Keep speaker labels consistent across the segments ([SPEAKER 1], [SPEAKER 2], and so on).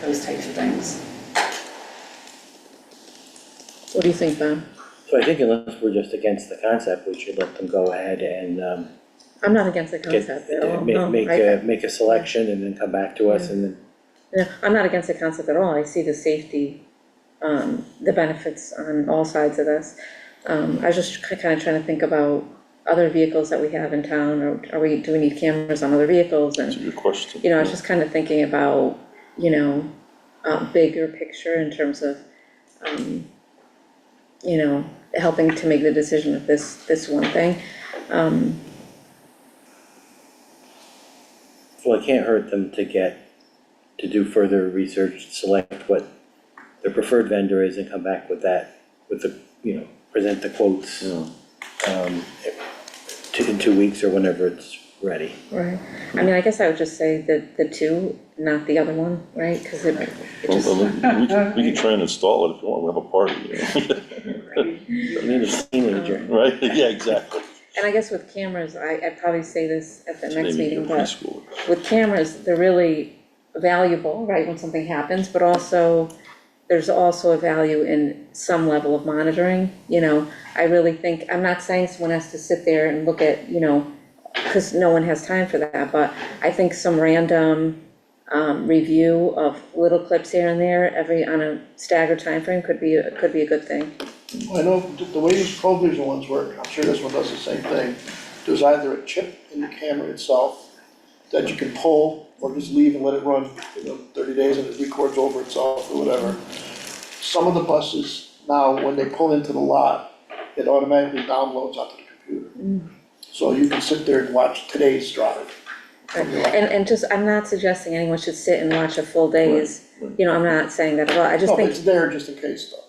[SPEAKER 1] those types of things.
[SPEAKER 2] What do you think, Ben?
[SPEAKER 3] So I think unless we're just against the concept, we should let them go ahead and, um,
[SPEAKER 2] I'm not against the
[SPEAKER 3] get, uh,
[SPEAKER 2] concept at all,
[SPEAKER 3] make,
[SPEAKER 2] no.
[SPEAKER 3] make
[SPEAKER 2] I-
[SPEAKER 3] a, make a selection and then come back to us and then
[SPEAKER 2] No, I'm not against the concept at all, I see the safety, um, the benefits on all sides of this. Um, I was just kind of trying to think about other vehicles that we have in town, or are we, do we need cameras on other vehicles and
[SPEAKER 4] That's a good question.
[SPEAKER 2] you know, I was just kind of thinking about, you know, uh, bigger picture in terms of, um, you know, helping to make the decision of this, this one thing. Um,
[SPEAKER 3] Well, it can't hurt them to get, to do further research, select what their preferred vendor is and come back with that, with the, you know, present the quotes. Um, two, in two weeks or whenever it's ready.
[SPEAKER 2] right, I mean, I guess I would just say the, the two, not the other one, right? Cause it, it
[SPEAKER 4] Well,
[SPEAKER 2] just,
[SPEAKER 4] I mean, We can, we can try and install it if you want, we have a party,
[SPEAKER 3] You need a
[SPEAKER 2] Oh.
[SPEAKER 3] teenager.
[SPEAKER 4] you know, right? Yeah, exactly.
[SPEAKER 2] and I guess with cameras, I, I'd probably say this at the next
[SPEAKER 4] Maybe
[SPEAKER 2] meeting,
[SPEAKER 4] a
[SPEAKER 2] but
[SPEAKER 4] preschool.
[SPEAKER 2] with cameras, they're really valuable, right, when something happens, but also there's also a value in some level of monitoring, you know? I really think, I'm not saying someone has to sit there and look at, you know, cause no one has time for that, but I think some random um, review of little clips here and there, every, on a staggered timeframe could be, could be a good thing.
[SPEAKER 5] I know th- the way these provision ones work, I'm sure this one does the same thing, there's either a chip in the camera itself that you can pull or just leave and let it run, you know, thirty days and it records over itself or whatever. Some of the buses now, when they pull into the lot, it automatically downloads onto the computer. So you can sit there and watch today's drive.
[SPEAKER 2] Right. And, and just, I'm not suggesting anyone should sit and watch a full day's, you know, I'm not saying that at all, I just
[SPEAKER 5] No,
[SPEAKER 2] think.
[SPEAKER 5] it's there just in case though.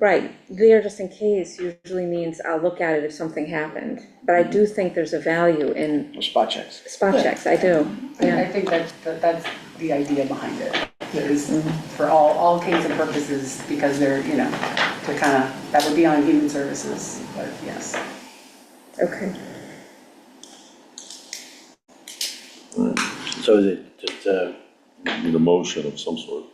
[SPEAKER 2] Right, there just in case usually means I'll look at it if something happened, but I do think there's a value in
[SPEAKER 5] Spot checks.
[SPEAKER 2] spot checks, I do,
[SPEAKER 1] I
[SPEAKER 2] yeah.
[SPEAKER 1] think that, that- that's the idea behind it, is for all, all kinds of purposes, because they're, you know, to kind of, that would be on human services, but yes.
[SPEAKER 2] Okay,
[SPEAKER 3] So is it just, uh,
[SPEAKER 4] Need a motion of some sort.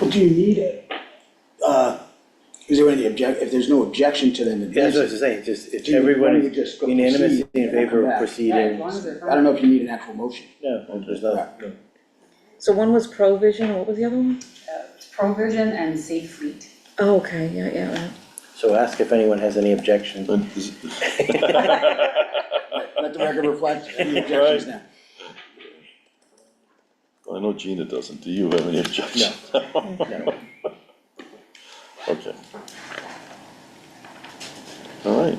[SPEAKER 6] Well, do you need it? Uh, Is there any object, if there's no objection to them
[SPEAKER 3] that's what I
[SPEAKER 6] advancing?
[SPEAKER 3] was saying, just, it's
[SPEAKER 6] Do you- why
[SPEAKER 3] everyone
[SPEAKER 6] don't you
[SPEAKER 3] is
[SPEAKER 6] just go
[SPEAKER 3] unanimous
[SPEAKER 6] proceed
[SPEAKER 3] in
[SPEAKER 6] and then
[SPEAKER 3] favor
[SPEAKER 6] come
[SPEAKER 3] of
[SPEAKER 6] back?
[SPEAKER 3] proceeding.
[SPEAKER 6] I don't know if you need an actual motion.
[SPEAKER 3] No, there's not,
[SPEAKER 2] so one was provision, what was the other one?
[SPEAKER 1] Provision and safe fleet.
[SPEAKER 2] Oh, okay, yeah, yeah, right.
[SPEAKER 3] so ask if anyone has any objections.
[SPEAKER 4] And is-
[SPEAKER 6] Let the record reflect any objections now.
[SPEAKER 4] I know Gina doesn't, do you have any objections?
[SPEAKER 3] No.
[SPEAKER 4] Okay. All right.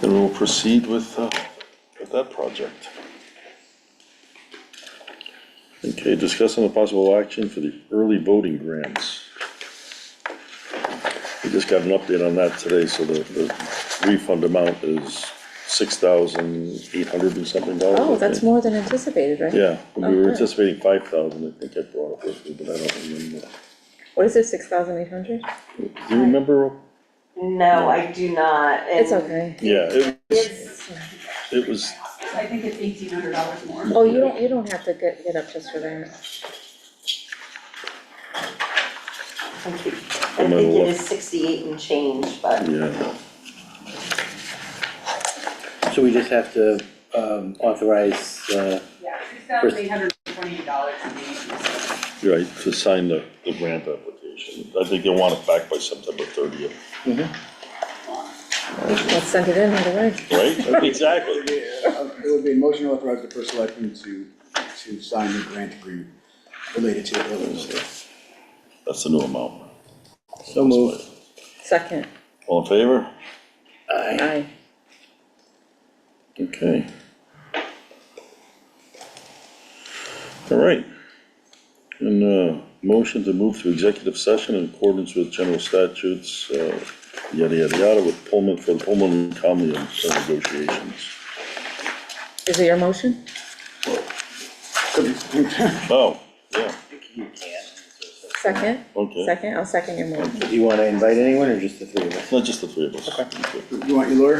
[SPEAKER 4] Then we'll proceed with, uh, with that project. Okay, discussing the possible action for the early voting grants. We just got an update on that today, so the, the refund amount is six thousand eight hundred and something dollars.
[SPEAKER 2] Oh,
[SPEAKER 4] I
[SPEAKER 2] that's
[SPEAKER 4] think.
[SPEAKER 2] more than anticipated, right?
[SPEAKER 4] Yeah, we
[SPEAKER 2] Oh,
[SPEAKER 4] were
[SPEAKER 2] good.
[SPEAKER 4] anticipating five thousand, I think I brought up with you, but I don't remember.
[SPEAKER 2] What is it, six thousand eight hundred?
[SPEAKER 4] Do you remember?
[SPEAKER 7] No, I do not. and
[SPEAKER 2] It's okay,
[SPEAKER 4] Yeah, it,
[SPEAKER 7] It's,
[SPEAKER 4] it was,
[SPEAKER 1] I think it's eighteen hundred dollars more.
[SPEAKER 2] oh, you don't, you don't have to get, get up just for that,
[SPEAKER 7] I think
[SPEAKER 4] I'm
[SPEAKER 7] I
[SPEAKER 4] gonna
[SPEAKER 7] think
[SPEAKER 4] look.
[SPEAKER 7] it is sixty-eight and change, but
[SPEAKER 4] yeah,
[SPEAKER 3] So we just have to, um, authorize, uh,
[SPEAKER 1] Yeah, six thousand eight hundred and twenty-eight dollars and eighty cents.
[SPEAKER 4] you're right, to sign the, the grant application. I think they want it back by September thirtieth,
[SPEAKER 2] let's send it in right away.
[SPEAKER 4] right? Exactly.
[SPEAKER 6] Uh, It would be a motion to authorize the first selectman to, to sign the grant agreement related to the building.
[SPEAKER 4] That's the new amount.
[SPEAKER 3] so move.
[SPEAKER 2] Second,
[SPEAKER 4] All in favor?
[SPEAKER 2] aye,
[SPEAKER 4] Okay. All right. And, uh, motion to move to executive session in accordance with general statutes, uh, yada, yada, yada, with Pullman, for the Pullman and Conley negotiations.
[SPEAKER 2] is it your motion?
[SPEAKER 4] Oh, yeah.
[SPEAKER 2] Second,
[SPEAKER 4] Okay,
[SPEAKER 2] second, I'll second your motion.
[SPEAKER 3] Do you wanna invite anyone or just the three of us?
[SPEAKER 4] not just the three of us. Okay.
[SPEAKER 6] You want your lawyer?